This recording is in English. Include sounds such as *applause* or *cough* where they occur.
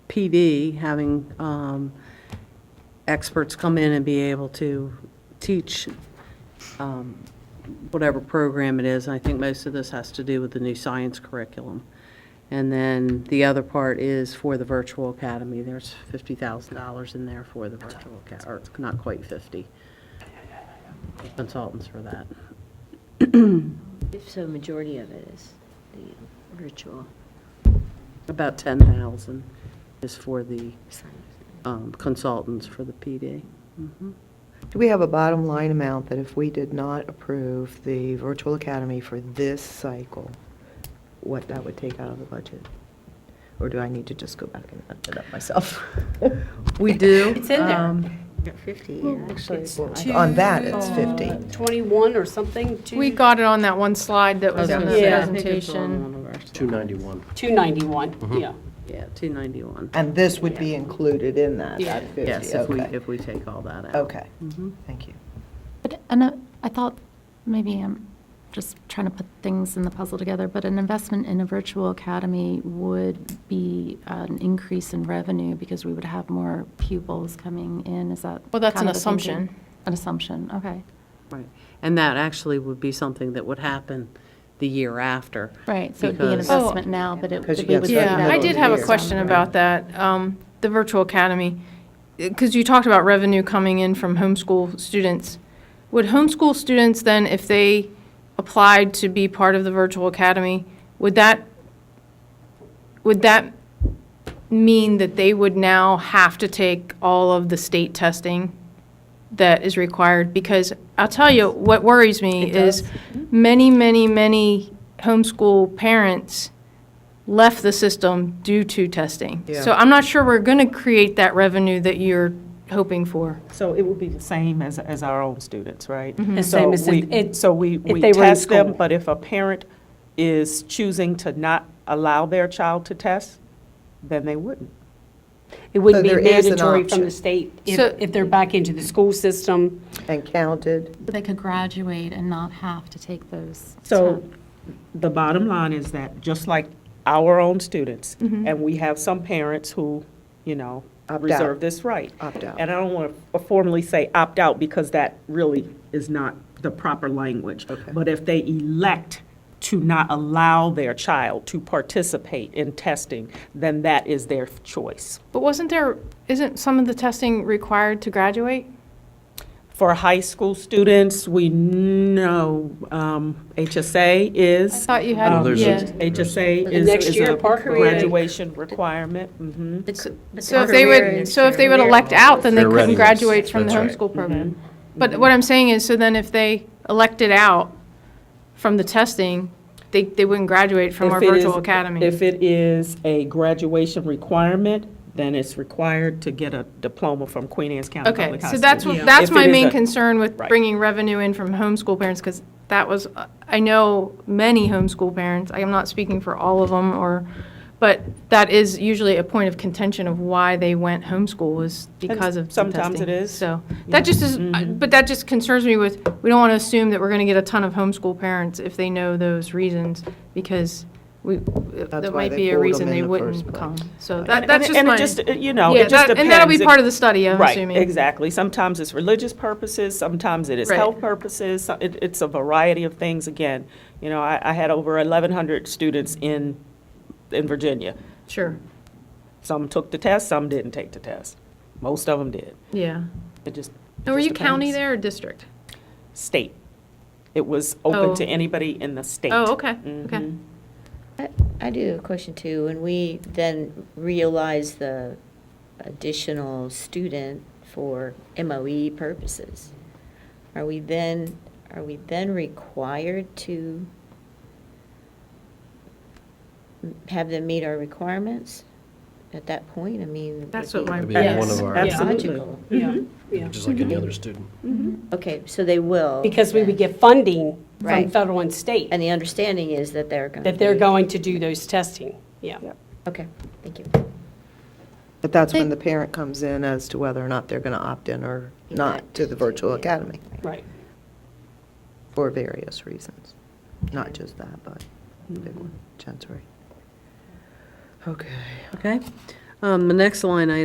PD, having um, experts come in and be able to teach um, whatever program it is. And I think most of this has to do with the new science curriculum. And then the other part is for the virtual academy. There's $50,000 in there for the virtual academy, or not quite 50. Consultants for that. If so, majority of it is the virtual About 10,000 is for the sign. um, consultants for the PD. Mhm. Do we have a bottom line amount that if we did not approve the virtual academy for this cycle, what that would take out of the budget? Or do I need to just go back and add that up myself? *laughs* We do. It's in there. um, Fifty, yeah. Actually, on that, it's 50. 21 Oh, or something, We got it on that one slide that was on the I Yeah. think it's on presentation. one of our slides. 291. 291, yeah. Yeah, 291. And this would be included in that, that 50, Yes, if we, okay. if we take all that out. Okay, thank you. But, and I- I thought, maybe I'm just trying to put things in the puzzle together, but an investment in a virtual academy would be an increase in revenue because we would have more pupils coming in, is that? Well, that's an kind of the thinking? assumption. An assumption, okay. Right. And that actually would be something that would happen the year after. Right, so it'd be an Because- investment now, but it. 'Cause you we get would started in the Yeah, I middle did of have a year. question about that, um, the virtual academy. Because you talked about revenue coming in from homeschool students. Would homeschool students then, if they applied to be part of the virtual academy, would that, would that mean that they would now have to take all of the state testing that is required? Because I'll tell you, what worries me is many, many, many homeschool parents left the system due to testing. So I'm not sure we're going to create that revenue that you're hoping for. So it would be the same as, as our own students, right? The So same as we- if- it- So we, if we they were in test them, school. but if a parent is choosing to not allow their child to test, then they wouldn't. It wouldn't be So there is an mandatory from option. the state if, So- if they're back into the school system. And counted, They could graduate and not have to take those. So tests. the bottom line is that, just like our own students, and we have some parents who, you know, Mm-hmm. Opt reserve out. this right. Opt out. And I don't want to formally say opt out because that really is not the proper language. But if they elect to not allow their child to participate in testing, then that is their choice. But wasn't there, isn't some of the testing required to graduate? For high school students, we know um, HSA I is. thought you Um, had, there's a- yeah. HSA The is next is year, a Parker Ray. graduation requirement. mhm. So if they would, so if they would elect out, then they Their couldn't readiness, graduate from the that's right. Mm-hmm. homeschool program. But what I'm saying is, so then if they elected out from the testing, they, they wouldn't graduate from our If it is- virtual academy. If it is a graduation requirement, then it's required to get a diploma from Queen Anne's County Okay, Public High so School. that's, what- that's If it my is main a- concern with Right. bringing revenue in from homeschool parents, because that was, uh, I know many homeschool parents, I am not speaking for all of them, or, but that is usually a point of contention of why they went homeschool was because of the testing. sometimes it is. Mm-hmm. So, that just is, I- but that just concerns me with, we don't want to assume that we're going to get a ton of homeschool parents if they know those reasons, because we, that why might they be a pulled reason them in they the first wouldn't place. come. So And- that, that's just and- my. And it just, uh, you know, Yeah, it just that- depends. and that'll be It- part of the study, I'm assuming. Right, exactly. Sometimes it's religious purposes, sometimes it is Right. health purposes. so- It, it's a variety of things. Again, you know, I, I had over 1,100 students in, in Virginia. Sure, Some took the test, some didn't take the test. Most of them did. yeah. It just. And were just you county depends. there or district? State. It was open Oh. to anybody in the state. Mm-hmm. Oh, okay, okay. I- I do have a question too. When we then realize the additional student for MOE purposes, are we then, are we then required to m- have them meet our requirements at that point? I mean. That's it'd what my- be That'd be one Yes, of our, Absolutely. logical. Mm-hmm. Yeah, yeah. just like any other student. Okay, so they will. Because we would get funding from Right. federal and state, And the understanding is that they're going to. that they're going to do those testing, yeah. Okay, thank you. But that's when the parent comes in as to whether or not they're going to opt in or not to the virtual academy, Right. for various reasons. Not just that, but the big one, Chancery. Okay. Okay. Um, The next line item